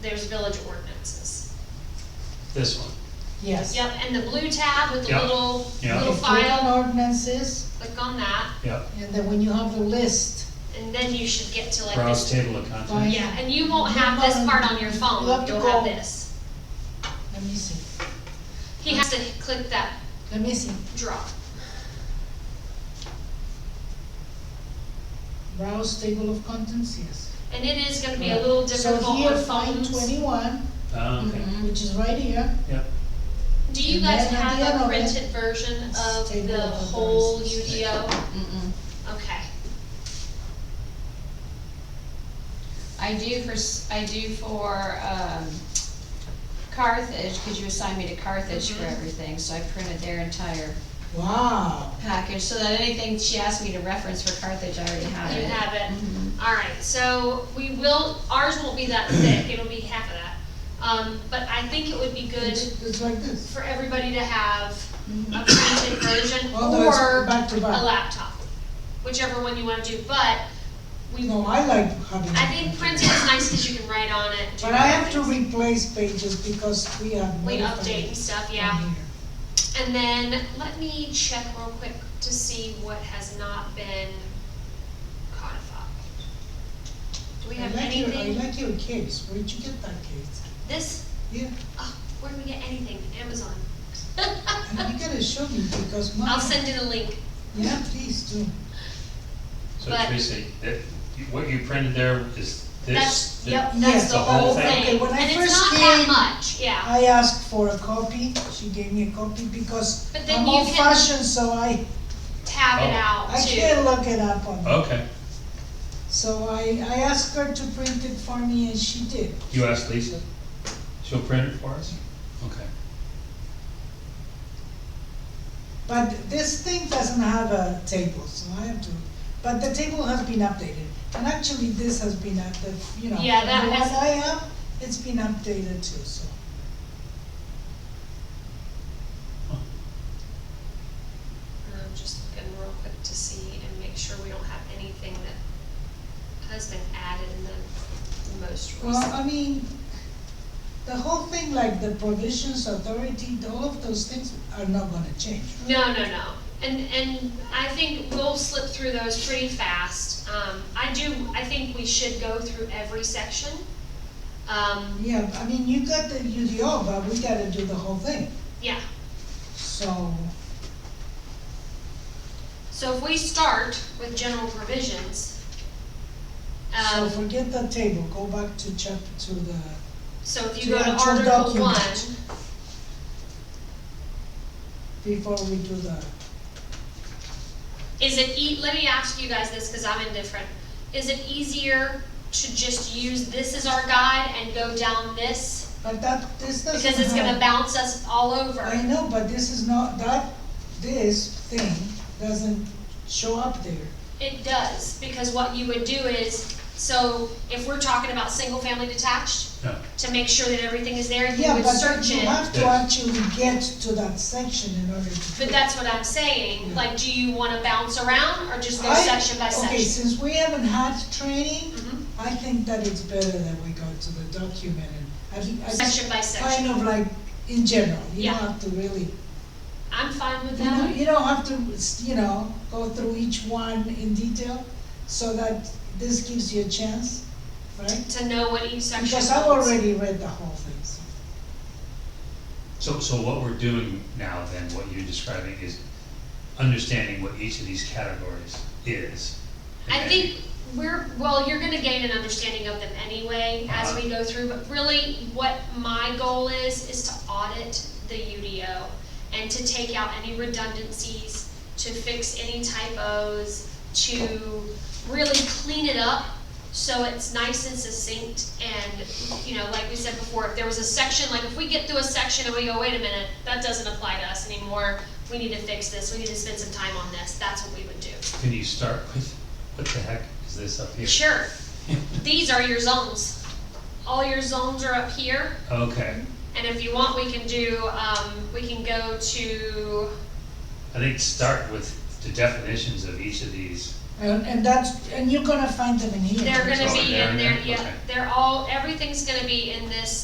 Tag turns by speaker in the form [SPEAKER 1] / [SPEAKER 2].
[SPEAKER 1] there's village ordinances.
[SPEAKER 2] This one,
[SPEAKER 3] Yes.
[SPEAKER 1] Yep, and the blue tab with the
[SPEAKER 2] Yeah.
[SPEAKER 1] little,
[SPEAKER 2] Yeah.
[SPEAKER 1] little
[SPEAKER 3] If you have
[SPEAKER 1] file,
[SPEAKER 3] ordinances,
[SPEAKER 1] click on that,
[SPEAKER 2] yeah,
[SPEAKER 3] and then when you have the list,
[SPEAKER 1] and then you should get to like
[SPEAKER 2] browse
[SPEAKER 1] this. Oh,
[SPEAKER 2] table of
[SPEAKER 3] Fine.
[SPEAKER 2] contents.
[SPEAKER 1] Yeah, and you won't have this part on your phone,
[SPEAKER 3] You'll have to
[SPEAKER 1] you'll have
[SPEAKER 3] go.
[SPEAKER 1] this.
[SPEAKER 3] let me see,
[SPEAKER 1] He has to click that
[SPEAKER 3] let me see,
[SPEAKER 1] drop.
[SPEAKER 3] browse table of contents, yes.
[SPEAKER 1] And it is gonna be a little difficult
[SPEAKER 3] So here,
[SPEAKER 1] on
[SPEAKER 3] find
[SPEAKER 1] phones.
[SPEAKER 3] twenty-one,
[SPEAKER 2] Ah,
[SPEAKER 1] Mm-hmm.
[SPEAKER 2] okay,
[SPEAKER 4] Mm-hmm,
[SPEAKER 3] which is right here,
[SPEAKER 2] yeah,
[SPEAKER 1] Do you
[SPEAKER 3] And
[SPEAKER 1] guys
[SPEAKER 3] then at the
[SPEAKER 1] have
[SPEAKER 3] end
[SPEAKER 1] a
[SPEAKER 3] of it,
[SPEAKER 1] printed version of
[SPEAKER 3] table
[SPEAKER 1] the
[SPEAKER 3] of
[SPEAKER 1] whole
[SPEAKER 3] ordinances.
[SPEAKER 1] UDO?
[SPEAKER 4] mm-hmm.
[SPEAKER 1] Okay.
[SPEAKER 4] I do for, s- I do for, um, Carthage, cause you assigned me to Carthage for
[SPEAKER 1] Mhm.
[SPEAKER 4] everything, so I printed their entire
[SPEAKER 3] wow.
[SPEAKER 4] package, so that anything she asked me to reference for Carthage, I already have
[SPEAKER 1] You
[SPEAKER 4] it.
[SPEAKER 1] have it.
[SPEAKER 3] Mm-hmm.
[SPEAKER 4] Mhm.
[SPEAKER 1] Alright, so we will, ours won't be that thick, it'll be half of that. Um, but I think it would be good
[SPEAKER 3] It's it's like this,
[SPEAKER 1] for everybody to have
[SPEAKER 4] Mhm.
[SPEAKER 1] a printed version
[SPEAKER 3] although it's
[SPEAKER 1] or
[SPEAKER 3] back to
[SPEAKER 1] a
[SPEAKER 3] back.
[SPEAKER 1] laptop, whichever one you wanna do, but we,
[SPEAKER 3] No, I like having.
[SPEAKER 1] I think printed is nice because you can write on it. do
[SPEAKER 3] But I have
[SPEAKER 1] things.
[SPEAKER 3] to replace pages because we have.
[SPEAKER 1] We
[SPEAKER 3] modified
[SPEAKER 1] update and stuff, yeah.
[SPEAKER 3] on here.
[SPEAKER 1] And then, let me check real quick to see what has not been codified. Do we
[SPEAKER 3] I
[SPEAKER 1] have
[SPEAKER 3] like your- I
[SPEAKER 1] anything?
[SPEAKER 3] like your case, where'd you get that case?
[SPEAKER 1] This,
[SPEAKER 3] Yeah,
[SPEAKER 1] oh, where do we get anything? Amazon.
[SPEAKER 3] and you gotta show me because mine.
[SPEAKER 1] I'll send you the link.
[SPEAKER 3] Yeah, please do.
[SPEAKER 2] so
[SPEAKER 1] But-
[SPEAKER 2] Tracy, that, you- what you printed there is this?
[SPEAKER 1] That's, yep,
[SPEAKER 3] Yes,
[SPEAKER 1] that's the
[SPEAKER 2] the whole
[SPEAKER 1] whole
[SPEAKER 2] thing.
[SPEAKER 3] Okay,
[SPEAKER 1] thing.
[SPEAKER 3] when I
[SPEAKER 1] And it's
[SPEAKER 3] first
[SPEAKER 1] not that
[SPEAKER 3] came- uh,
[SPEAKER 1] much, yeah.
[SPEAKER 3] I asked for a copy, she gave me a copy because
[SPEAKER 1] But then
[SPEAKER 3] I'm
[SPEAKER 1] you
[SPEAKER 3] old
[SPEAKER 1] can-
[SPEAKER 3] fashioned, so I,
[SPEAKER 1] Tab it
[SPEAKER 2] Oh.
[SPEAKER 1] out
[SPEAKER 3] I
[SPEAKER 1] too.
[SPEAKER 3] can't look it up on.
[SPEAKER 2] Okay,
[SPEAKER 3] So I, I asked her to print it for me and she did.
[SPEAKER 2] you asked Lisa, she'll print it for us? Okay,
[SPEAKER 3] But this thing doesn't have a table, so I have to, but the table has been updated. And actually, this has been, up- the you know,
[SPEAKER 1] Yeah, that
[SPEAKER 3] the one
[SPEAKER 1] has-
[SPEAKER 3] I have, it's been updated too, so.
[SPEAKER 1] I'm just looking real quick to see and make sure we don't have anything that has been added in the most
[SPEAKER 3] Well,
[SPEAKER 1] recent.
[SPEAKER 3] I mean, the whole thing, like the provisions, authority, all of those things are not gonna change.
[SPEAKER 1] No, no, no. And, and I think we'll slip through those pretty fast. Um, I do, I think we should go through every section. Um,
[SPEAKER 3] Yeah, I mean, you got the UDO, but we gotta do the whole thing,
[SPEAKER 1] yeah,
[SPEAKER 3] so,
[SPEAKER 1] so if we start with general provisions,
[SPEAKER 3] so
[SPEAKER 1] um,
[SPEAKER 3] forget the table, go back to chap, to the,
[SPEAKER 1] so if
[SPEAKER 3] to
[SPEAKER 1] you go to
[SPEAKER 3] actual
[SPEAKER 1] Article one,
[SPEAKER 3] document. before we do the,
[SPEAKER 1] is it e, let me ask you guys this, cause I'm indifferent. Is it easier to just use this as our guide and go down this?
[SPEAKER 3] but that, this doesn't
[SPEAKER 1] Because it's gonna
[SPEAKER 3] have-
[SPEAKER 1] bounce us all
[SPEAKER 3] I
[SPEAKER 1] over.
[SPEAKER 3] know, but this is not, that, this thing doesn't show up there.
[SPEAKER 1] It does, because what you would do is, so if we're talking about single-family detached,
[SPEAKER 2] yeah,
[SPEAKER 1] to make sure that everything is there, you
[SPEAKER 3] Yeah,
[SPEAKER 1] would
[SPEAKER 3] but
[SPEAKER 1] search
[SPEAKER 3] you
[SPEAKER 1] it.
[SPEAKER 3] have to
[SPEAKER 2] Yes.
[SPEAKER 3] actually get to that section in order to.
[SPEAKER 1] But that's what I'm saying,
[SPEAKER 3] Yeah.
[SPEAKER 1] like, do you wanna bounce around, or just go
[SPEAKER 3] I-
[SPEAKER 1] section by
[SPEAKER 3] Okay,
[SPEAKER 1] section?
[SPEAKER 3] since we haven't had training,
[SPEAKER 1] Mhm.
[SPEAKER 3] I think that it's better that we go to the document and, I think, I just
[SPEAKER 1] Section by section,
[SPEAKER 3] kind of like, in general, you
[SPEAKER 1] Yeah.
[SPEAKER 3] don't have to really,
[SPEAKER 1] I'm fine with
[SPEAKER 3] you know,
[SPEAKER 1] that,
[SPEAKER 3] you don't have to, you know, go through each one in detail, so that this gives you a chance, right?
[SPEAKER 1] to know what each section
[SPEAKER 3] Because I've
[SPEAKER 1] holds.
[SPEAKER 3] already read the whole thing, so.
[SPEAKER 2] so, so what we're doing now then, what you're describing is understanding what each of these categories is. and
[SPEAKER 1] I
[SPEAKER 2] then-
[SPEAKER 1] think we're, well, you're gonna gain an understanding of them anyway as
[SPEAKER 2] Uh-huh.
[SPEAKER 1] we go through, but really what my goal is, is to audit the UDO and to take out any redundancies, to fix any typos, to really clean it up so it's nice and succinct and, you know, like we said before, if there was a section, like if we get through a section and we go, wait a minute, that doesn't apply to us anymore, we need to fix this, we need to spend some time on this, that's what we would do.
[SPEAKER 2] Can you start with, what the heck is this up here?
[SPEAKER 1] Sure. These are your zones. All your zones are up here,
[SPEAKER 2] Okay,
[SPEAKER 1] and if you want, we can do, um, we can go to,
[SPEAKER 2] I think start with the definitions of each of these
[SPEAKER 3] And, and that's, and you're gonna find them in here.
[SPEAKER 1] They're
[SPEAKER 3] too.
[SPEAKER 1] gonna
[SPEAKER 2] Oh,
[SPEAKER 1] be
[SPEAKER 2] they're
[SPEAKER 1] in
[SPEAKER 2] in
[SPEAKER 1] there,
[SPEAKER 2] there?
[SPEAKER 1] yeah,
[SPEAKER 2] Okay.
[SPEAKER 1] they're all, everything's gonna be in this